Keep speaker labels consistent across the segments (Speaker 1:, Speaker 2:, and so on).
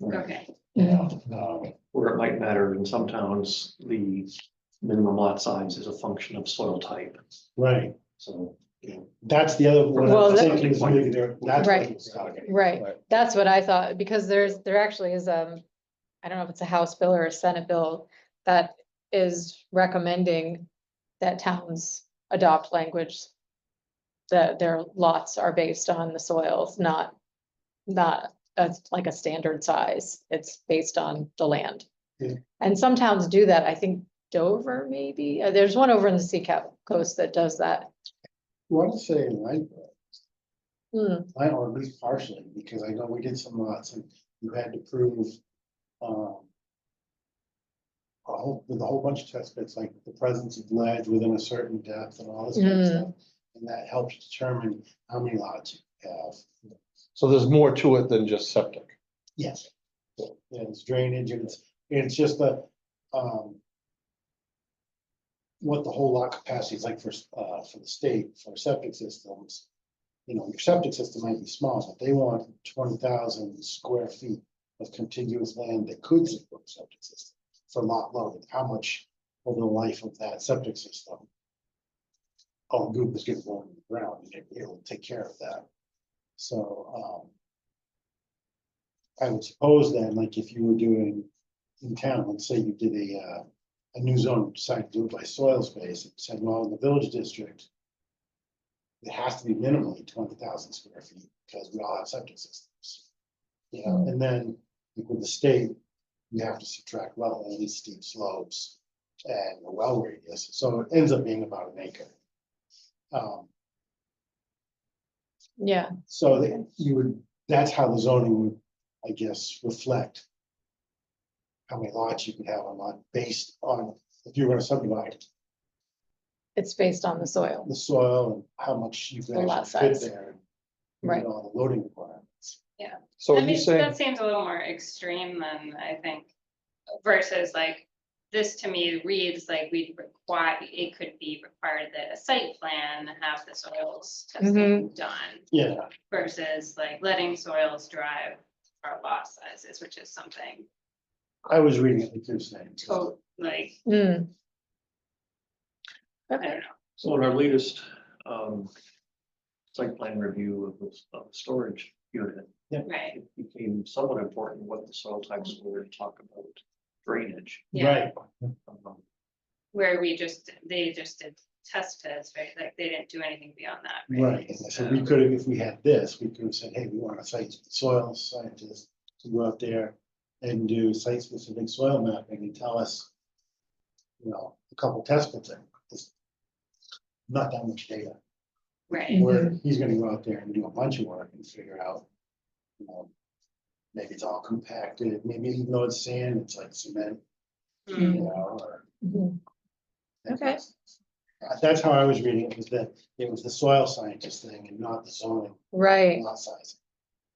Speaker 1: Okay,
Speaker 2: Yeah.
Speaker 3: Um,
Speaker 4: uh, Where it might matter in some towns, the minimum lot size is a function of soil type,
Speaker 3: Right,
Speaker 4: so.
Speaker 3: that's the other one
Speaker 2: Well,
Speaker 3: I'm
Speaker 2: that-
Speaker 3: thinking is maybe there, that's.
Speaker 2: Right.
Speaker 3: Okay.
Speaker 2: Right,
Speaker 3: Right.
Speaker 2: that's what I thought, because there's, there actually is, um, I don't know if it's a House bill or a Senate bill that is recommending that towns adopt language that their lots are based on the soils, not, not a- like a standard size. It's based on the land.
Speaker 3: Yeah.
Speaker 2: And some towns do that. I think Dover maybe, Uh, there's one over in the Sea Cap Coast that does that.
Speaker 3: Want to say Langford,
Speaker 2: Hmm,
Speaker 3: I or at least partially, because I know we did some lots and you had to prove, um. A whole, with a whole bunch of test bits, like the presence of lead within a certain depth and all this kind of stuff. And that helps determine how many lots you have.
Speaker 5: So there's more to it than just septic.
Speaker 3: Yes. Yeah, it's drainage and it's, and it's just the, um. What the whole lot capacity is like for, s- uh, for the state, for septic systems. You know, your septic system might be small, but they want twenty thousand square feet of contiguous land that could support a septic system. For lot load, how much over the life of that septic system? All goop is getting blown in the ground, and it- it'll take care of that. So, um. I would suppose then, like if you were doing in town, let's say you did a, uh, a new zone, decided to do it by soil space, and said, well, in the village district. It has to be minimally twenty thousand square feet, because we all have septic systems. You
Speaker 2: Mm.
Speaker 3: know, and then like with the state, you have to subtract wetlands, steep slopes, and the well radius, so it ends up being about an acre. Um,
Speaker 2: yeah,
Speaker 3: so that you would, that's how the zoning would, I guess, reflect. How many lots you could have on lot based on, if you were to subdivide
Speaker 2: it's based on the soil.
Speaker 3: the soil and how much you could
Speaker 2: The lot
Speaker 3: actually fit
Speaker 2: size.
Speaker 3: there. and meet
Speaker 2: Right.
Speaker 3: All the loading requirements.
Speaker 5: So
Speaker 6: I
Speaker 5: are you
Speaker 6: mean,
Speaker 5: saying,
Speaker 6: that seems a little more extreme than I think versus like, this to me reads like we require, it could be required that a site plan have the soils testing
Speaker 2: Mhm.
Speaker 6: done
Speaker 3: Yeah,
Speaker 6: versus like letting soils drive our lot sizes, which is something
Speaker 3: I was reading it, like you're saying.
Speaker 6: to, like,
Speaker 2: Hmm.
Speaker 6: I
Speaker 2: Okay.
Speaker 6: don't know.
Speaker 4: So in our latest, um, site plan review of this, of the storage unit,
Speaker 6: Right,
Speaker 4: it became somewhat important what the soil types were to talk about drainage.
Speaker 6: yeah,
Speaker 3: Right,
Speaker 4: Um,
Speaker 6: where we just, they just did test pits, right? Like, they didn't do anything beyond that.
Speaker 3: right. And so we could have, if we had this, we could have said, hey, we want a site soil scientist to go out there and do site-specific soil mapping and tell us, you know, a couple test pits, and just not that much data.
Speaker 6: Right,
Speaker 3: Where he's gonna go out there and do a bunch of work and figure out, you know, maybe it's all compacted, maybe even though it's sand, it's like cement,
Speaker 6: Mm,
Speaker 3: you know, or.
Speaker 2: Mhm. Okay.
Speaker 3: Uh, That's how I was reading it, was that it was the soil scientist thing and not the zoning
Speaker 2: Right,
Speaker 3: lot size.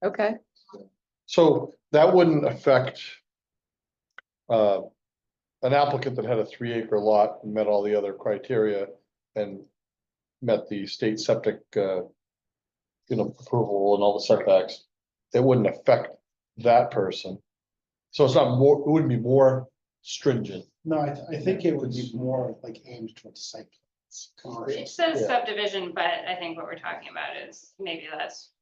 Speaker 2: okay.
Speaker 5: so that wouldn't affect uh, an applicant that had a three acre lot and met all the other criteria and met the state septic, uh, you know, approval and all the setbacks, it wouldn't affect that person. So it's not more, it wouldn't be more stringent.
Speaker 3: No, I, th- I think it would be more like aimed towards site plans,
Speaker 6: It
Speaker 3: commercial.
Speaker 6: says
Speaker 5: Yeah.
Speaker 6: subdivision, but I think what we're talking about is maybe that's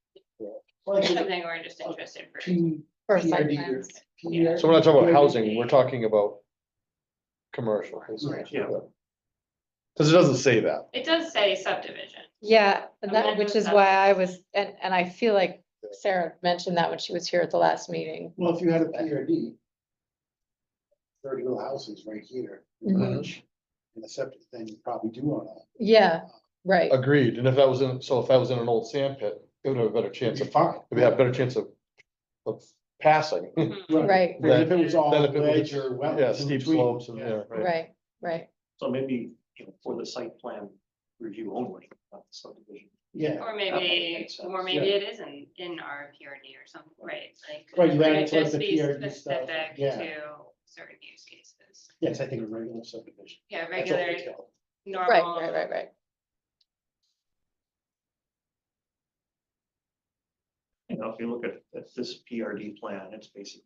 Speaker 3: Like a
Speaker 6: something we're just interested for.
Speaker 3: P-
Speaker 2: For site
Speaker 3: PRD or
Speaker 2: plans.
Speaker 3: PRD.
Speaker 5: So we're not talking about housing, we're talking about commercial.
Speaker 3: Right.
Speaker 4: Yeah.
Speaker 5: Because it doesn't say that.
Speaker 6: It does say subdivision.
Speaker 2: Yeah, and
Speaker 6: And
Speaker 2: that,
Speaker 6: then
Speaker 2: which
Speaker 6: there's
Speaker 2: is
Speaker 6: that-
Speaker 2: why I was, and, and I feel like Sarah mentioned that when she was here at the last meeting.
Speaker 3: Well, if you had a PRD. Thirty little houses right here. in
Speaker 2: Mhm.
Speaker 3: Birch, And a septic, then you probably do want to.
Speaker 2: Yeah, right,
Speaker 5: Agreed. And if that was in, so if that was in an old sand pit, it would have a better chance
Speaker 3: It's
Speaker 5: of,
Speaker 3: fine.
Speaker 5: it would have a better chance of, of passing.
Speaker 3: Hmm.
Speaker 6: Mhm.
Speaker 2: right,
Speaker 3: But if it was all
Speaker 5: Than if it was-
Speaker 3: ledge or wetlands
Speaker 5: Yeah,
Speaker 3: in
Speaker 5: steep
Speaker 3: between,
Speaker 5: slopes and,
Speaker 3: yeah.
Speaker 5: yeah, right.
Speaker 2: right, right.
Speaker 4: So maybe, you know, for the site plan review only, not the subdivision.
Speaker 3: Yeah,
Speaker 6: Or
Speaker 4: Okay,
Speaker 6: maybe,
Speaker 4: makes sense.
Speaker 6: or maybe it isn't in our PRD or something, right? Like.
Speaker 3: Right, you
Speaker 6: could
Speaker 3: add it
Speaker 6: it
Speaker 3: towards
Speaker 6: just
Speaker 3: the
Speaker 6: be
Speaker 3: PRD stuff,
Speaker 6: specific
Speaker 3: yeah.
Speaker 6: To certain use cases.
Speaker 3: yes, I think a regular subdivision.
Speaker 6: Yeah,
Speaker 3: That's all
Speaker 6: regular,
Speaker 3: detailed.
Speaker 6: normal.
Speaker 2: Right, right, right, right.
Speaker 4: You know, if you look at, at this PRD plan, it's basically